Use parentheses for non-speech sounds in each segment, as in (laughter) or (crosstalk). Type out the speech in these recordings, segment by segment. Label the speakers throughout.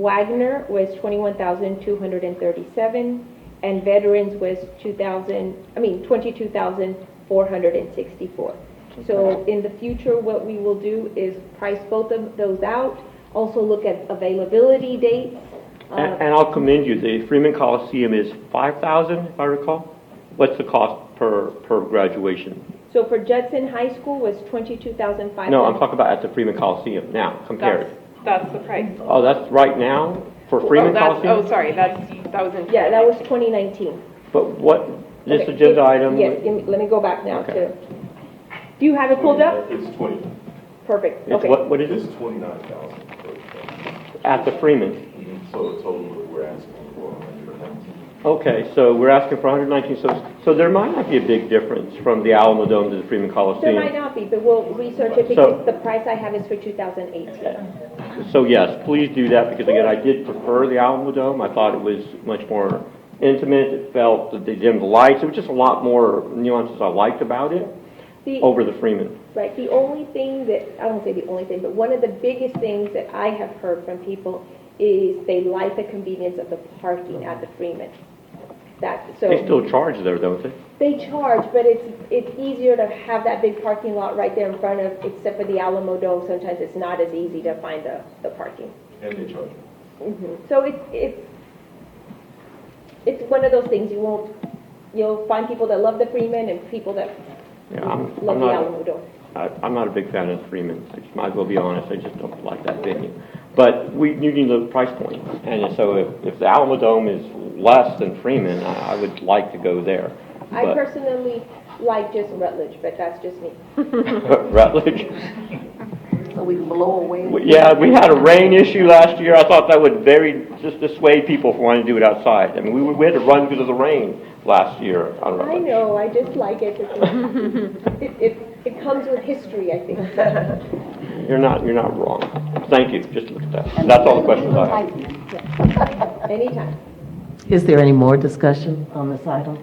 Speaker 1: Wagner was twenty-one thousand two hundred and thirty-seven, and veterans was two thousand, I mean, twenty-two thousand four hundred and sixty-four. So in the future, what we will do is price both of those out, also look at availability dates. Uh,
Speaker 2: And and I'll commend you, the Freeman Coliseum is 5,000, if I recall. What's the cost per, per graduation?
Speaker 1: So for Judson High School was twenty-two thousand five hundred.
Speaker 2: No, I'm talking about at the Freeman Coliseum now, compared.
Speaker 3: That's the price.
Speaker 2: Oh, that's right now for
Speaker 3: Oh,
Speaker 2: Freeman
Speaker 3: that's- Oh,
Speaker 2: Coliseum?
Speaker 3: sorry, that's, that was in.
Speaker 1: Yeah, that was twenty nineteen.
Speaker 2: But what, this agenda item?
Speaker 1: Yes, give me- let me go back now
Speaker 2: Okay.
Speaker 1: to, do you have it pulled up?
Speaker 4: It's twenty,
Speaker 1: Perfect,
Speaker 2: It's
Speaker 1: okay.
Speaker 2: what, what is
Speaker 4: it's
Speaker 2: it?
Speaker 4: twenty-nine thousand.
Speaker 2: At the Freeman.
Speaker 4: So the total we're asking for a hundred and nineteen.
Speaker 2: Okay, so we're asking for 119, so, so there might not be a big difference from the Alamo Dome to the Freeman
Speaker 1: There might
Speaker 2: Coliseum.
Speaker 1: not be, but we'll research it because the price I have is for 2018.
Speaker 2: So yes, please do that, because again, I did prefer the Alamo Dome. I thought it was much more intimate, it felt, that they dimmed the lights, there was just a lot more nuances I liked about it
Speaker 1: The,
Speaker 2: over the Freeman.
Speaker 1: right, the only thing that, I won't say the only thing, but one of the biggest things that I have heard from people is they like the convenience of the parking at the Freeman. That, so.
Speaker 2: They still charge there, don't they?
Speaker 1: They charge, but it's, it's easier to have that big parking lot right there in front of, except for the Alamo Dome, sometimes it's not as easy to find the, the parking.
Speaker 4: And they charge.
Speaker 1: Mm-hmm. So it's, it's, it's one of those things, you won't, you'll find people that love the Freeman and people that
Speaker 2: Yeah, I'm,
Speaker 1: love
Speaker 2: I'm
Speaker 1: the
Speaker 2: not,
Speaker 1: Alamo Dome.
Speaker 2: I- I'm not a big fan of Freeman, I just might as well be honest, I just don't like that venue. But we, you need the price point, and so if, if the Alamo Dome is less than Freeman, I, I would like to go there.
Speaker 1: I
Speaker 2: But-
Speaker 1: personally like just Rutledge, but that's just me.
Speaker 2: Rutledge?
Speaker 5: So we blow away.
Speaker 2: We- Yeah, we had a rain issue last year. I thought that would very, just dissuade people from wanting to do it outside. I mean, we, we had to run because of the rain last year on
Speaker 1: I
Speaker 2: Rutledge.
Speaker 1: know, I just like it, It's- it, (laughs) it, it comes with history, I
Speaker 6: (laughs)
Speaker 1: think.
Speaker 2: You're not, you're not wrong. Thank you, just look at that. That's all the questions I have.
Speaker 1: Anytime.
Speaker 6: Is there any more discussion on this item?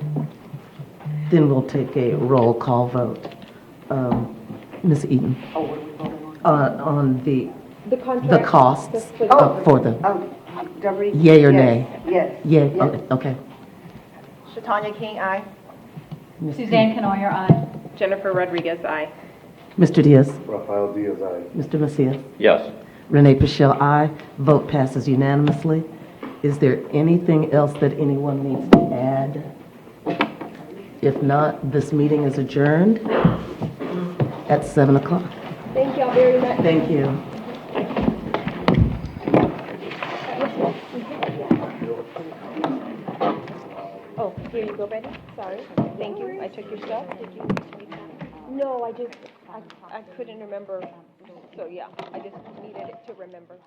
Speaker 6: Then we'll take a roll call vote. Um, Ms. Eaton,
Speaker 5: Oh, what are we voting on?
Speaker 6: uh, on the,
Speaker 1: The contract.
Speaker 6: the costs
Speaker 1: for- for-
Speaker 6: of- for the,
Speaker 5: Oh, Deborah?
Speaker 6: Yea or
Speaker 5: yes,
Speaker 6: nay?
Speaker 5: Yes.
Speaker 6: yeah,
Speaker 5: yes.
Speaker 6: okay, okay.
Speaker 3: Shatanya King, aye.
Speaker 6: Ms. Eaton.
Speaker 7: Suzanne Canoyer, aye.
Speaker 3: Jennifer Rodriguez, aye.
Speaker 6: Mr. Diaz,
Speaker 4: Rafael Diaz, aye.
Speaker 6: Mr. Macias,
Speaker 2: Yes.
Speaker 6: Renee Pichelle, aye. Vote passes unanimously. Is there anything else that anyone needs to add? If not, this meeting is adjourned at 7 o'clock.
Speaker 1: Thank y'all very much.
Speaker 6: Thank you.
Speaker 1: Oh, here you go, Betty. Sorry. Thank you. I took your stuff. Did you? No, I just, I, I couldn't remember. So, yeah, I just needed it to remember.